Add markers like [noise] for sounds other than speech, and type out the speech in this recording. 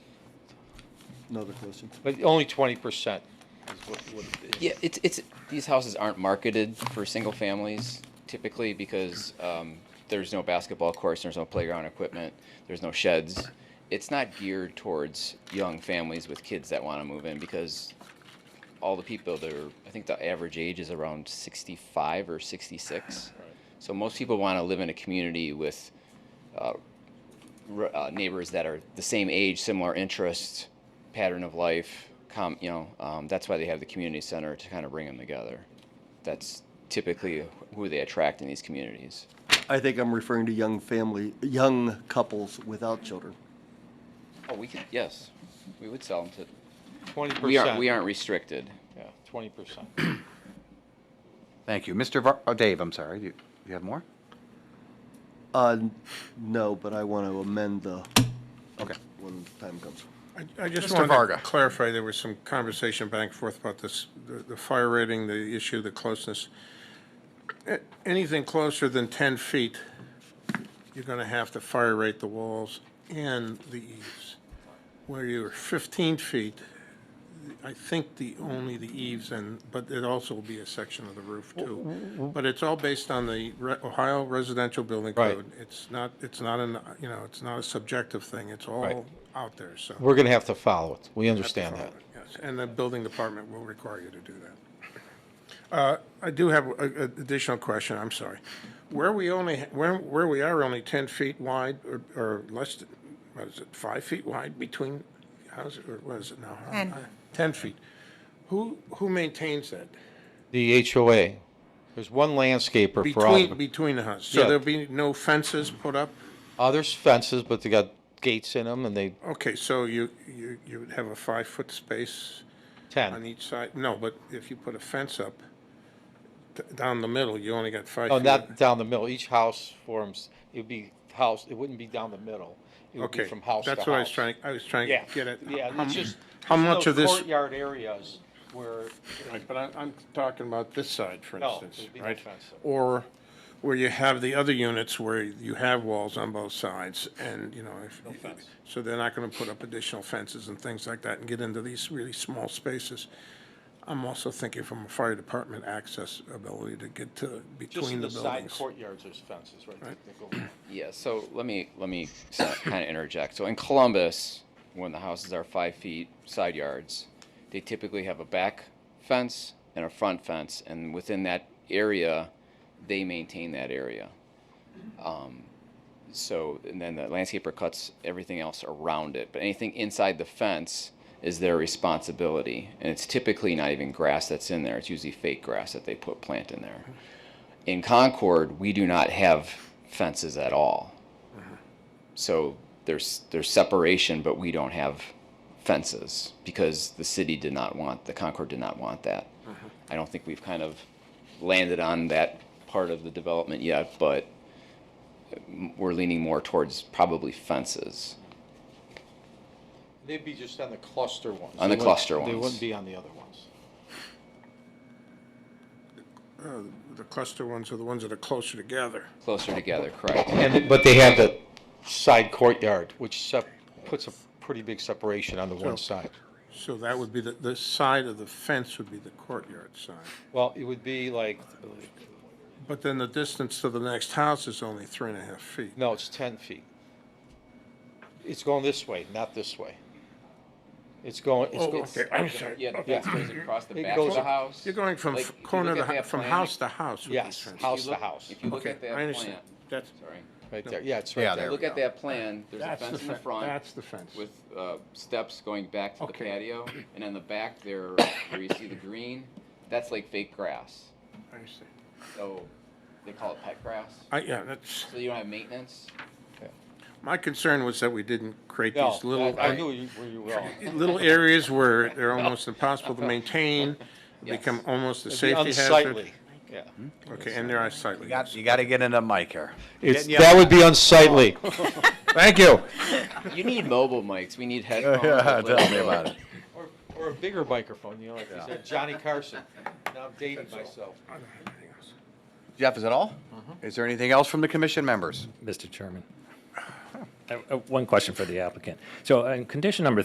another question. but only twenty percent is what, what it is. Yeah, it's it's these houses aren't marketed for single families typically because um, there's no basketball course, there's no playground equipment, there's no sheds. It's not geared towards young families with kids that want to move in because all the people there, I think the average age is around 65 or 66. So most people want to live in a community with r- uh, neighbors that are the same age, similar interests, pattern of life. Com- you know, um, that's why they have the community center to kind of bring them together. That's typically who they attract in these communities. I think I'm referring to young family, young couples without children. Oh, we could yes, we would sell them Twenty to. We aren't percent. we aren't restricted. Yeah, twenty percent. Thank you. Mr. Var, oh, Dave, I'm sorry. You, you have more? Uh, no, but I want to amend the, Okay. when time comes. I- I just Mr. wanted Varga. to clarify, there was some conversation back and forth about this, the the fire rating, the issue, the closeness. A- Anything closer than 10 feet, you're going to have to fire rate the walls and the eaves. Where you're 15 feet, I think the, only the eaves and, but it also will be a section of the roof too. But it's all based on the Re- Ohio Residential Building Right. Code. It's not, it's not an, you know, it's not a subjective thing. It's all out there, so. We're gonna have to follow it. We understand that. Yes, and the building department will require you to do that. Uh, I do have an additional question, I'm sorry. Where we only, where, where we are only 10 feet wide or- or less, than- what is it, five feet wide between houses, or what is it now? Ten. Uh, 10 feet. Who, who maintains that? The HOA, there's one landscaper for all. of Between, them. between the houses? Yeah. So there'll be no fences put up? Uh, there's fences, but they got gates in them and they, Okay, so you, you, you would have a five-foot space? on ten. each side, no, but if you put a fence up d- down the middle, you only got five No, feet. not down the middle. Each house forms, it'd be house, it wouldn't be down the middle. It would be Okay, from house to house. that's what I was trying, I was trying Yeah. to get at. Yeah, it's just. how there's much no of this- Courtyard areas where, Right, But I'm, I'm talking about this side, for No, instance, there'd be no right? fence there. Or where you have the other units where you have walls on both sides and, you know, if, so they're not gonna put up additional fences and things like that and get into these really small spaces. I'm also thinking from a fire department access ability to get to just between in the the side buildings. courtyards, there's fences, right? that go around. Yeah, so let me, let me kind of interject. So in Columbus, when the houses are five feet side yards, they typically have a back fence and a front fence, and within that area, they maintain that area. Um, So, and then the landscaper cuts everything else around it, but anything inside the fence is their responsibility. And it's typically not even grass that's in there, it's usually fake grass that they put, plant in there in Concord, we do not have fences at all. So there's there's separation, but we don't have fences because the city did not want the Concord did not want that. I don't think we've kind of landed on that part of the development yet, but we're leaning more towards probably fences. They'd be just on the cluster ones. On the They wouldn't- cluster They ones. wouldn't be on the other ones. The cluster ones are the ones that are closer together. Closer together, correct? And, but they have the side courtyard, which sep- puts a pretty big separation on the one side. So that would be the, the side of the fence would be the courtyard side. Well, it would be like, But then the distance to the next house is only three and a half feet. no, it's ten feet. It's going this way, not this way. It's going, it's Oh, going. okay, I'm sorry. Yeah, the fence goes across the It back goes- of the house. You're going from Like, f- if you corner look to, at hou- that from plan, house to house with these Yes, fences. house to look- house, If you look Okay, at that I plan, understand. That's, sorry. right there, yeah, it's Yeah, right If you there. Look at that plan, there's a that's the fence in the fence, front that's the fence. with uh, steps going back to the Okay. patio, and on the back there, where you see the green, that's like fake grass. I understand. So, they call it pet grass, I, yeah, that's, so you don't have maintenance. my concern was that we didn't create No, these little. I I knew you- where you were going. [laughs] Little areas where [laughs] they're almost impossible to maintain, become almost a It'd be safety hazard. unsightly, yeah. Okay, and they're unsightly. You got, you got to get in the mic [laughs] here. It's, Getting you- that would be unsightly. Thank you. You need mobile mics, we need [laughs] headphones. Tell with me little- about it. [laughs] Or, or a bigger microphone, you know, like you said, Johnny Carson. Now I'm dating myself. Jeff, is that all? Mm-hmm. Is there anything else from the commission members? Uh, Mr. Chairman. I- I- One question for the applicant. So in condition number